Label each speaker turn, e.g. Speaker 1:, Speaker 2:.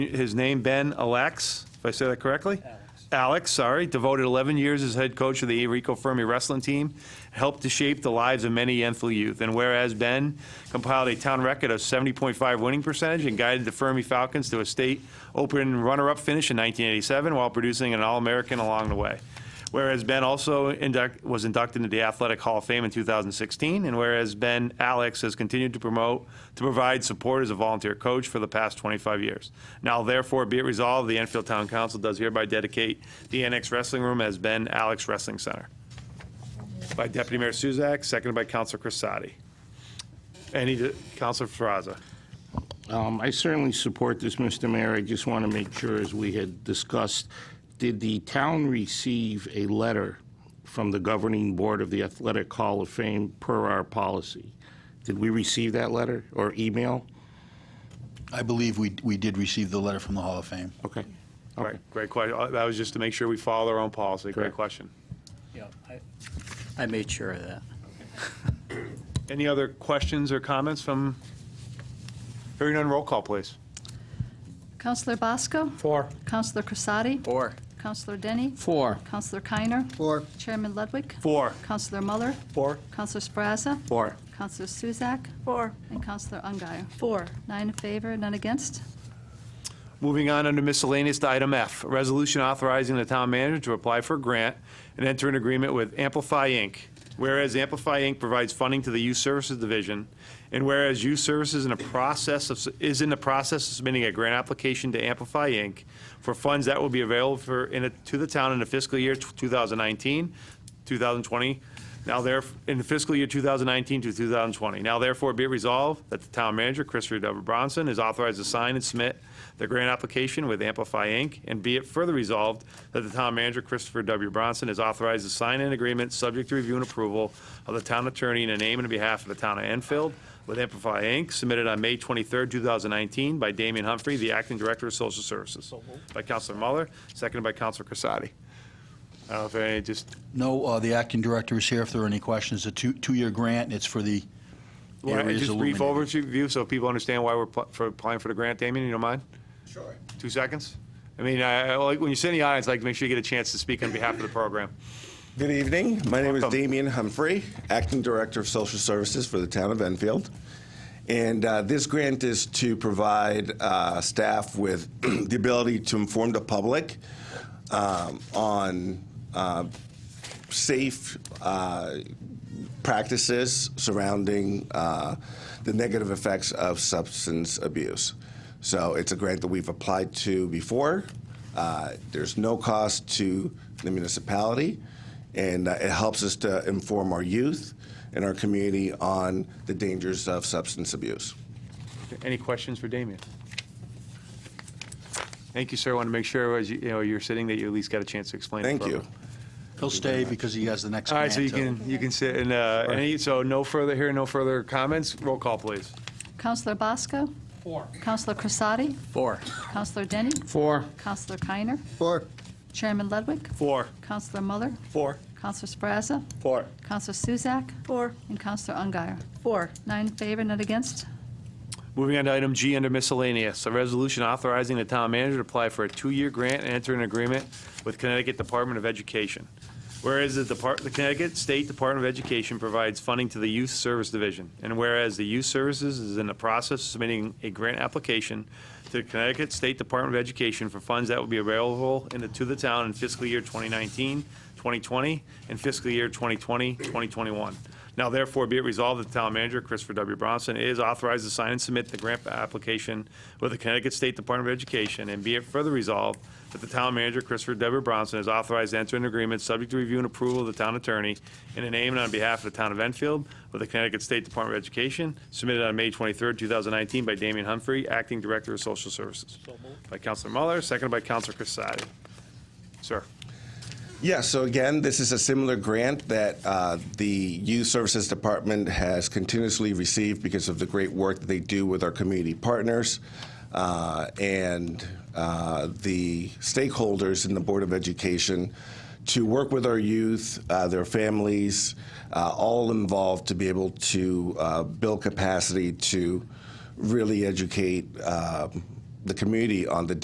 Speaker 1: his name, Ben Alex, if I say that correctly? Alex, sorry, devoted 11 years as head coach of the Rico Fermi wrestling team, helped to shape the lives of many Enfield youth. And whereas Ben compiled a town record of 70.5 winning percentage and guided the Fermi Falcons to a state open runner-up finish in 1987 while producing an All-American along the way. Whereas Ben also induct, was inducted into the Athletic Hall of Fame in 2016, and whereas Ben Alex has continued to promote to provide support as a volunteer coach for the past 25 years. Now, therefore, be it resolved, the Enfield Town Council does hereby dedicate the Annex Wrestling Room as Ben Alex Wrestling Center. By Deputy Mayor Suzak, seconded by Councilor Crissati. Any di- Councilor Faraza.
Speaker 2: Um, I certainly support this, Mr. Mayor. I just want to make sure, as we had discussed, did the town receive a letter from the governing board of the Athletic Hall of Fame per our policy? Did we receive that letter or email?
Speaker 3: I believe we, we did receive the letter from the Hall of Fame.
Speaker 2: Okay.
Speaker 1: Right, great question. That was just to make sure we follow our own policy. Great
Speaker 2: Correct.
Speaker 1: question.
Speaker 4: Yeah, I, I made sure of that.
Speaker 1: Any other questions or comments from, hearing none, roll call, please.
Speaker 5: Counselor Bosco?
Speaker 4: Four.
Speaker 5: Counselor Crissati?
Speaker 4: Four.
Speaker 5: Counselor Denny?
Speaker 4: Four.
Speaker 5: Counselor Keiner?
Speaker 3: Four.
Speaker 5: Chairman Ludwig?
Speaker 1: Four.
Speaker 5: Counselor Muller?
Speaker 4: Four.
Speaker 5: Counselor Sprazza?
Speaker 4: Four.
Speaker 5: Counselor Suzak?
Speaker 6: Four.
Speaker 5: And Counselor Ungary.
Speaker 6: Four.
Speaker 5: Nine in favor, none against.
Speaker 1: Moving on under miscellaneous to item F, a resolution authorizing the town manager to apply for a grant and enter an agreement with Amplify Inc. Whereas Amplify Inc. provides funding to the Youth Services Division, and whereas Youth Services in a process of, is in the process of submitting a grant application to Amplify Inc. for funds that will be available for, in, a- to the town in the fiscal year 2019, 2020. Now there, in the fiscal year 2019 to 2020. Now therefore be it resolved that the town manager, Chris Redover Bronson, is authorized to sign and submit the grant application with Amplify Inc. And be it further resolved that the town manager, Christopher W. Bronson, is authorized to sign an agreement subject to review and approval of the town attorney in the name and behalf of the town of Enfield with Amplify Inc., submitted on May 23rd, 2019 by Damian Humphrey, the acting director of social services. By Counselor Muller, seconded by Counselor Crissati. I don't know if any, just
Speaker 3: No, uh, the acting director is here if there are any questions. A two, two-year grant, it's for the
Speaker 1: Well, and
Speaker 3: areas
Speaker 1: Just brief
Speaker 3: illuminated.
Speaker 1: overview so people understand why we're pl- for applying for the grant, Damien, you don't mind?
Speaker 7: Sure.
Speaker 1: Two seconds? I mean, I, I like, when you sit in the audience, I like, to make sure you get a chance to speak on behalf of the program.
Speaker 7: Good evening. My name is
Speaker 1: Welcome.
Speaker 7: Damian Humphrey, Acting Director of Social Services for the Town of Enfield. And uh, this grant is to provide uh, staff with the ability to inform the public um, on uh, safe uh, practices surrounding uh, the negative effects of substance abuse. So it's a grant that we've applied to before. Uh, There's no cost to the municipality, and uh, it helps us to inform our youth and our community on the dangers of substance abuse.
Speaker 1: Any questions for Damien? Thank you, sir. I want to make sure as you, you know, you're sitting that you at least got a chance to explain. the
Speaker 7: Thank you.
Speaker 1: program.
Speaker 3: He'll stay because he has the next
Speaker 1: All right,
Speaker 3: grant.
Speaker 1: so you can, you can sit and, uh, any, so no further here, no further comments. Roll call, please.
Speaker 5: Counselor Bosco? Four. Counselor Crissati?
Speaker 4: Four.
Speaker 5: Counselor Denny?
Speaker 4: Four.
Speaker 5: Counselor Keiner?
Speaker 3: Four.
Speaker 5: Chairman Ludwig?
Speaker 1: Four.
Speaker 5: Counselor Muller?
Speaker 1: Four.
Speaker 5: Counselor Sprazza?
Speaker 1: Four.
Speaker 5: Counselor Suzak?
Speaker 6: Four.
Speaker 5: And Counselor Ungary.
Speaker 6: Four.
Speaker 5: Nine in favor, none against.
Speaker 1: Moving on to item G under miscellaneous, a resolution authorizing the town manager to apply for a two-year grant and enter an agreement with Connecticut Department of Education. Whereas the Depart, the Connecticut State Department of Education provides funding to the Youth Service Division, and whereas the Youth Services is in the process of submitting a grant application to the Connecticut State Department of Education for funds that will be available in the, to the town in fiscal year 2019, 2020, and fiscal year 2020, 2021. Now therefore be it resolved that the town manager, Christopher W. Bronson, is authorized to sign and submit the grant application with the Connecticut State Department of Education, and be it further resolved that the town manager, Christopher W. Bronson, is authorized to enter an agreement subject to review and approval of the town attorney in the name and on behalf of the town of Enfield with the Connecticut State Department of Education, submitted on May 23, 2019 by Damian Humphrey, Acting Director of Social Services. By Counselor Muller, seconded by Counselor Crissati. Sir.
Speaker 7: Yeah, so again, this is a similar grant that uh, the Youth Services Department has continuously received because of the great work that they do with our community partners uh, and uh, the stakeholders in the Board of Education to work with our youth, uh, their families, uh, all involved to be able to uh, build capacity to really educate um the community on the